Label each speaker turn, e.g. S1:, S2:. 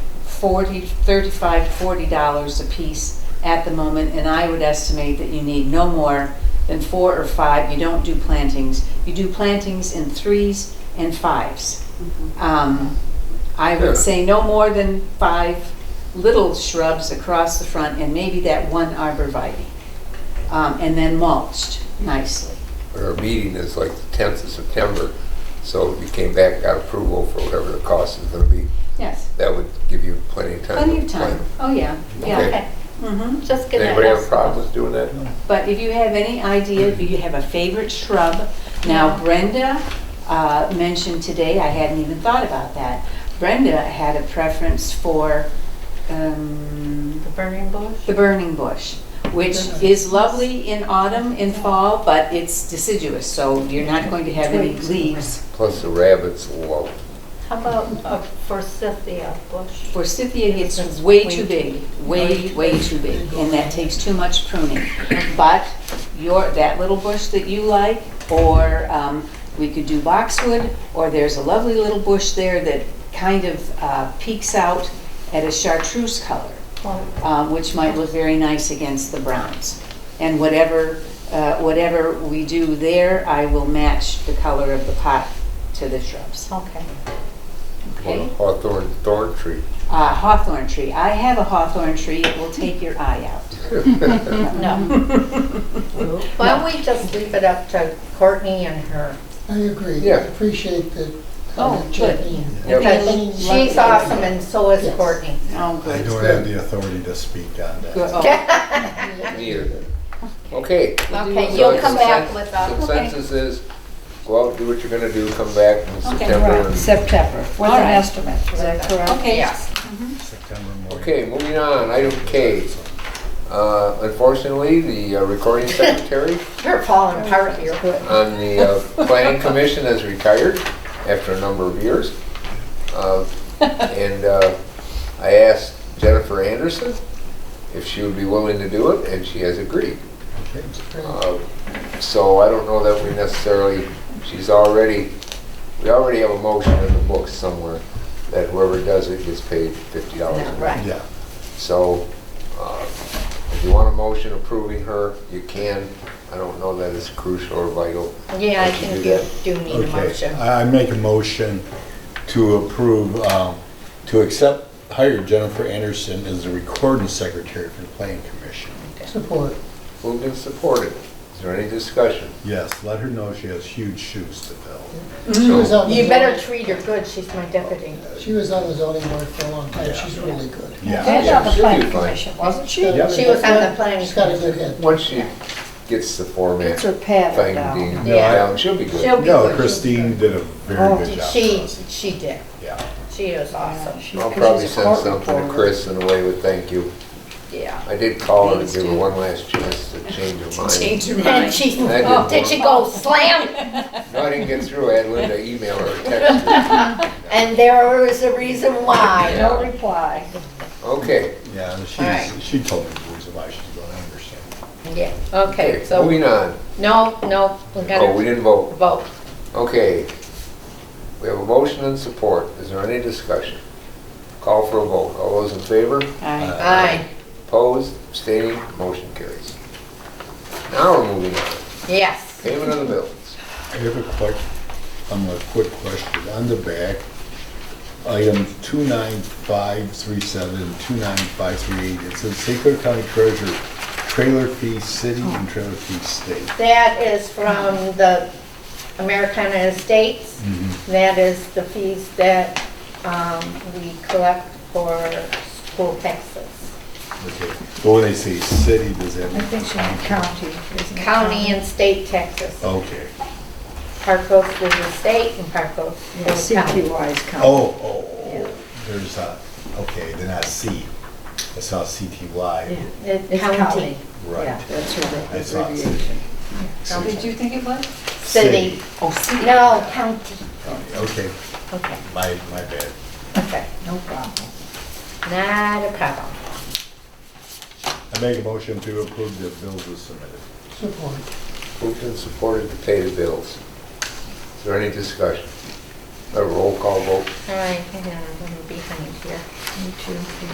S1: forty, thirty-five, forty dollars a piece at the moment, and I would estimate that you need no more than four or five. You don't do plantings. You do plantings in threes and fives. Um, I
S2: Yeah.
S1: would say no more than five little shrubs across the front, and maybe that one arborvitae. Um, and then mulched nicely.
S2: Our meeting is like the 10th of September, so if you came back, and got approval for whatever the cost is going to be,
S1: Yes,
S2: that would give you plenty of time. to
S1: plenty of time.
S2: plan.
S1: Oh, yeah, yeah.
S2: Okay.
S3: Okay,
S1: Mm-hmm.
S3: just get that.
S2: Anybody have
S3: out.
S2: problems doing that?
S1: But if you have any idea, if you have a favorite shrub, now Brenda uh, mentioned today, I hadn't even thought about that. Brenda had a preference for um,
S3: The burning bush?
S1: the burning bush, which is lovely in autumn and fall, but it's deciduous, so you're not going to have any leaves.
S2: Plus the rabbits, whoa.
S3: How about a forsythia bush?
S1: Forsythia gets way too big, way, way too big, and that takes too much pruning. But your, that little bush that you like, or um, we could do boxwood, or there's a lovely little bush there that kind of uh, peeks out at a chartreuse color,
S3: Well,
S1: um, which might look very nice against the browns. And whatever, uh, whatever we do there, I will match the color of the pot to the shrubs,
S3: Okay.
S1: okay?
S2: Well, Hawthorn thorn tree.
S1: Uh, hawthorn tree. I have a hawthorn tree. It will take your eye out.
S3: No. Why don't we just leave it up to Courtney and her?
S4: I agree,
S2: Yeah.
S4: I appreciate uh, the
S1: Oh,
S4: comment
S1: good.
S4: checking.
S2: Yep.
S3: Because she's awesome and so is
S4: Yes.
S3: Courtney.
S1: Oh,
S5: I don't have the authority to speak on that.
S1: Good. Oh,
S2: Me either. Okay.
S3: Okay,
S2: So
S3: you'll come back
S2: consen-
S3: with us.
S2: Consensus is, go out, do what you're going to do, come back in September.
S6: Right,
S2: and-
S6: September, with
S1: All
S6: an
S1: right.
S6: estimate, is that correct?
S1: Okay.
S3: Yes.
S5: September morning.
S2: Okay, moving on, item K. Uh, Unfortunately, the uh, recording secretary
S3: You're falling apart here.
S2: on the uh, planning commission has retired after a number of years. Uh, And uh, I asked Jennifer Anderson if she would be willing to do it, and she has agreed.
S5: Okay.
S2: Uh, So I don't know that we necessarily, she's already, we already have a motion in the books somewhere that whoever does it gets paid fifty dollars.
S3: Right.
S5: Yeah,
S2: So, uh, if you want a motion approving her, you can. I don't know that it's crucial or vital.
S3: Yeah, I
S2: that you
S3: think
S2: do
S3: you
S2: that.
S3: do need a
S5: okay.
S3: motion.
S5: I I make a motion to approve, um, to accept, hire Jennifer Anderson as the recording secretary for the planning commission.
S4: Support.
S2: Moved and supported. Is there any discussion?
S5: Yes, let her know she has huge shoes to fill.
S4: She was
S2: So,
S4: on the
S3: You better
S4: zoning-
S3: treat her good, she's my deputy.
S4: She was on the zoning board for a long time,
S5: Yeah.
S4: she's really good.
S5: Yeah,
S6: And on the
S2: She'll do
S6: planning
S2: fine.
S6: commission, wasn't she?
S5: Yep.
S3: She was on the planning.
S4: She's got a good head.
S2: once she gets the format
S6: It's her
S2: thing
S6: pattern now.
S2: down,
S3: Yeah.
S2: down, she'll be good.
S3: She'll be
S5: no,
S3: good.
S5: Christine did a
S6: Oh,
S5: very good job.
S3: She, she did.
S5: Yeah,
S3: She is awesome.
S6: She-
S2: I'll
S6: 'cause
S2: probably
S6: she's a
S2: send
S6: court
S2: something to
S6: reporter.
S2: Chris in a way with thank you.
S3: Yeah.
S2: I did call her to
S1: Please
S2: give her
S1: do.
S2: one last chance to change her mind.
S1: Change your
S3: And
S1: mind.
S3: she,
S2: That didn't
S3: did Oh, she go slam?
S2: No, I didn't get through. I had Linda email her, or text her.
S3: And there is a reason why.
S6: No reply.
S2: Okay,
S5: yeah,
S3: Alright.
S5: she's, she told me the reason why she's going to Anderson.
S3: Yeah, okay, so,
S2: moving on.
S3: no, no,
S2: Oh,
S3: we
S2: we
S3: gotta
S2: didn't vote.
S3: vote.
S2: Okay, we have a motion and support. Is there any discussion? Call for a vote. All those in favor?
S1: Aye.
S3: Aye,
S2: Opposed? Abstaining? Motion carries. Now we're moving on.
S3: yes.
S2: Payment of the bills.
S5: I have a quick, um, a quick question. On the back, items 29537, 29538, it says St. Clair County Treasurer, trailer fee city and trailer fee state.
S3: That is from the Americana Estates.
S2: Mm-hmm.
S3: That is the fees that um, we collect for school taxes.
S5: Okay. But when they say city, does that
S6: I
S5: mean,
S6: think she meant county. isn't
S2: Mm-hmm.
S6: it?
S3: County and state taxes.
S2: Oh.
S5: okay.
S3: Park goes to the state and part goes to
S6: Yeah,
S3: the county.
S6: CTY is county.
S5: Oh, oh,
S6: Yeah.
S5: oh, there's a, okay, then I see. I saw
S6: Yeah,
S5: CTY,
S3: It's
S6: It's county.
S3: county,
S6: Yeah,
S5: right.
S6: that's her
S5: I saw it.
S6: abbreviation.
S1: How did you think it was?
S3: city.
S1: Oh, see.
S3: No, county.
S5: Okay,
S3: Okay,
S5: my, my bad.
S3: okay.
S6: No problem.
S3: Not a problem.
S5: I make a motion to approve the bills as submitted.
S4: Support.
S2: Moved and supported to pay the bills. Is there any discussion? a roll call vote.
S3: All right, hang on, I'm gonna be behind here.
S6: Me too.